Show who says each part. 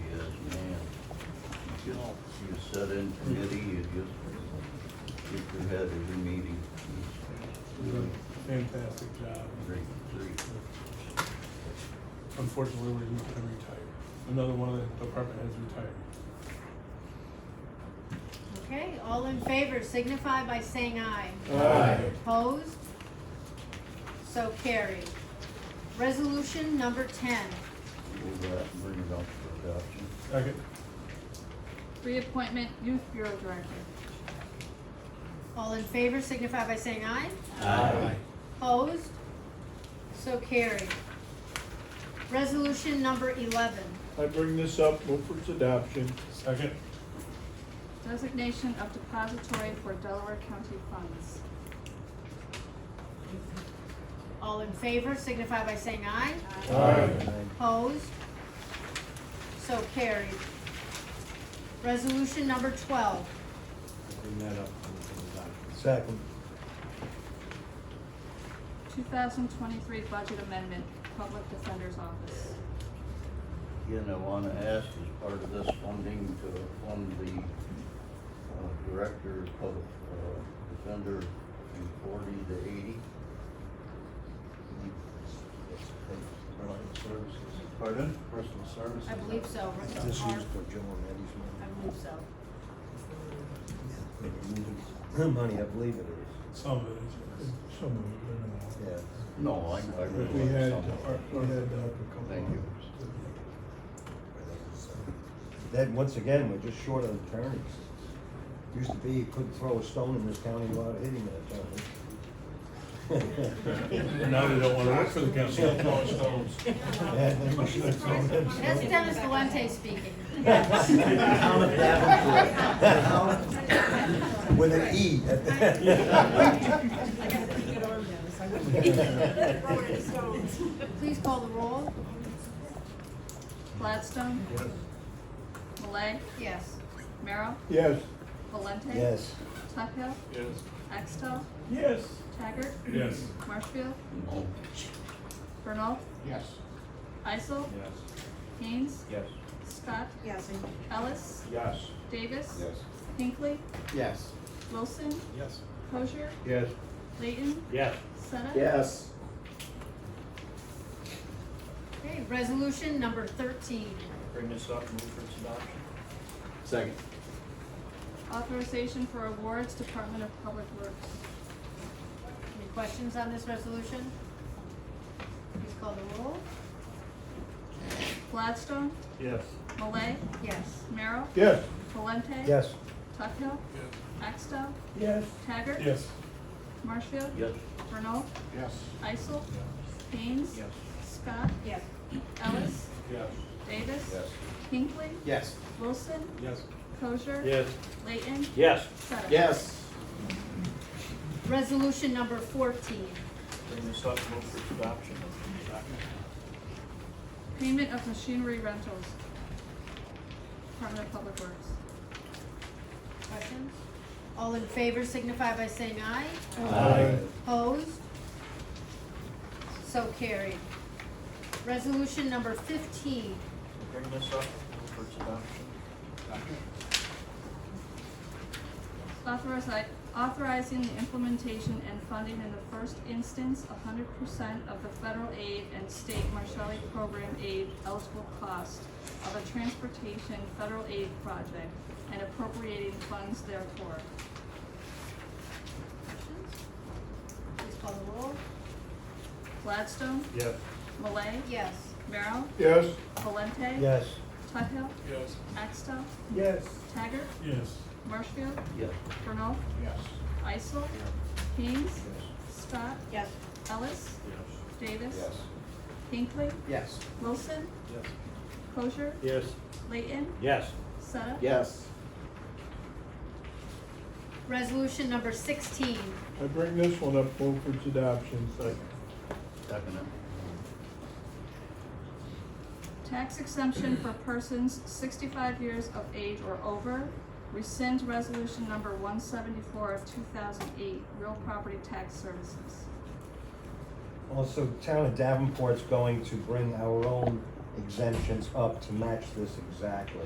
Speaker 1: you all.
Speaker 2: You sit in committee, you just, keep your head every meeting.
Speaker 3: Really Fantastic job.
Speaker 2: Great, great.
Speaker 3: Unfortunately, we're going to retire. Another one of the department heads retired.
Speaker 4: Okay, all in favor signify by saying aye.
Speaker 3: Aye.
Speaker 4: Opposed? So carried. Resolution number ten,
Speaker 2: Move that and bring it up for adoption.
Speaker 3: Second.
Speaker 5: Reappointment Youth Bureau Director.
Speaker 4: all in favor signify by saying aye. Opposed? So carried. Resolution number eleven,
Speaker 1: I bring this up, move for its adoption.
Speaker 3: Second.
Speaker 5: Designation of depository for Delaware County funds.
Speaker 4: all in favor signify by saying aye. Opposed? So carried. Resolution number twelve,
Speaker 1: Bring that up for adoption.
Speaker 6: Second.
Speaker 5: 2023 Budget Amendment, Public Defender's Office.
Speaker 2: Again, I want to ask, as part of this funding, to fund the uh, Director of Public uh, Defender from forty to eighty.
Speaker 1: Services.
Speaker 2: Pardon?
Speaker 1: Personal services.
Speaker 4: I believe so, Russell
Speaker 6: This is
Speaker 4: Park.
Speaker 6: for Joe and Eddie's
Speaker 4: I
Speaker 6: money.
Speaker 4: believe so.
Speaker 6: Maybe moving her money, I believe it is.
Speaker 3: Some of it is.
Speaker 7: Some of it, I don't know.
Speaker 6: Yeah.
Speaker 2: No, I, I
Speaker 3: If
Speaker 2: really.
Speaker 3: we had,
Speaker 2: some of
Speaker 3: our-
Speaker 2: it.
Speaker 3: our-
Speaker 7: We had uh, a couple.
Speaker 2: Thank you.
Speaker 6: Then, once again, we're just short of attorneys. Used to be, you couldn't throw a stone in this county without hitting an attorney.
Speaker 3: Now they don't want to work for the county.
Speaker 6: Yeah, then we should have thrown them some.
Speaker 4: That's Dennis Valente speaking.
Speaker 6: Town of Davenport. With an E at the.
Speaker 8: I got a pretty good arm now, so I wouldn't throw any stones.
Speaker 4: Please call the roll.
Speaker 5: Gladstone. Malay.
Speaker 4: Yes.
Speaker 5: Merrill.
Speaker 1: Yes.
Speaker 5: Valente.
Speaker 6: Yes.
Speaker 5: Tuckhill.
Speaker 3: Yes.
Speaker 5: Axtell.
Speaker 3: Yes.
Speaker 5: Taggart.
Speaker 3: Yes.
Speaker 5: Marshfield.
Speaker 2: No.
Speaker 5: Bernal.
Speaker 1: Yes.
Speaker 5: Isel.
Speaker 1: Yes.
Speaker 5: Haynes.
Speaker 1: Yes.
Speaker 5: Scott.
Speaker 8: Yes, and
Speaker 5: Ellis.
Speaker 1: Yes.
Speaker 5: Davis. Hinckley.
Speaker 1: Yes.
Speaker 5: Wilson.
Speaker 1: Yes.
Speaker 5: Crozier.
Speaker 1: Yes.
Speaker 5: Layton.
Speaker 1: Yes.
Speaker 5: Senna.
Speaker 1: Yes.
Speaker 4: Okay, resolution number thirteen.
Speaker 1: Bring this up, move for its adoption.
Speaker 2: Second.
Speaker 5: Authorization for awards, Department of Public Works.
Speaker 4: Any questions on this resolution? Please call the roll.
Speaker 5: Gladstone.
Speaker 1: Yes.
Speaker 5: Malay.
Speaker 4: Yes.
Speaker 5: Merrill.
Speaker 1: Yes.
Speaker 5: Valente.
Speaker 6: Yes.
Speaker 5: Tuckhill. Axtell.
Speaker 1: Yes.
Speaker 5: Taggart.
Speaker 3: Yes.
Speaker 5: Marshfield.
Speaker 2: Yes.
Speaker 5: Bernal.
Speaker 1: Yes.
Speaker 5: Isel. Haynes.
Speaker 1: Yes.
Speaker 5: Scott.
Speaker 4: Yes.
Speaker 5: Ellis.
Speaker 1: Yes.
Speaker 5: Davis.
Speaker 2: Yes.
Speaker 5: Hinckley.
Speaker 1: Yes.
Speaker 5: Wilson.
Speaker 1: Yes.
Speaker 5: Kosher.
Speaker 1: Yes.
Speaker 5: Layton.
Speaker 1: Yes.
Speaker 5: Sutta.
Speaker 1: Yes.
Speaker 4: Resolution number fourteen.
Speaker 1: Bring this up, move for its adoption.
Speaker 5: Payment of machinery rentals. Department of Public Works.
Speaker 4: Questions? All in favor signify by saying aye.
Speaker 1: Aye.
Speaker 4: Opposed? So carried. Resolution number fifteen.
Speaker 1: Bring this up, move for its adoption.
Speaker 5: Authorize, authorizing the implementation and funding in the first instance hundred percent of the federal aid and state Marshalli program aid eligible cost of a transportation federal aid project and appropriating funds therefor.
Speaker 4: Questions? Please call the roll.
Speaker 5: Gladstone.
Speaker 1: Yes.
Speaker 5: Malay.
Speaker 4: Yes.
Speaker 5: Merrill.
Speaker 1: Yes.
Speaker 5: Valente.
Speaker 6: Yes.
Speaker 5: Tuthill.
Speaker 3: Yes.
Speaker 5: Axtell.
Speaker 1: Yes.
Speaker 5: Taggart.
Speaker 3: Yes.
Speaker 5: Marshfield.
Speaker 2: Yes.
Speaker 5: Bernal.
Speaker 1: Yes.
Speaker 5: Isel. Haynes. Scott.
Speaker 8: yes,
Speaker 5: Ellis. Davis.
Speaker 2: Yes.
Speaker 5: Hinckley.
Speaker 1: Yes.
Speaker 5: Wilson.
Speaker 1: Yes.
Speaker 5: Kosher.
Speaker 1: Yes.
Speaker 5: Layton.
Speaker 1: Yes.
Speaker 5: Sutta.
Speaker 1: Yes.
Speaker 4: Resolution number sixteen.
Speaker 7: I bring this one up, move for its adoption.
Speaker 2: Second.
Speaker 5: Tax exemption for persons sixty-five years of age or over. Rescind resolution number one seventy-four of two thousand eight, real property tax services.
Speaker 6: Also, town of Davenport's going to bring our own exemptions up to match this exactly.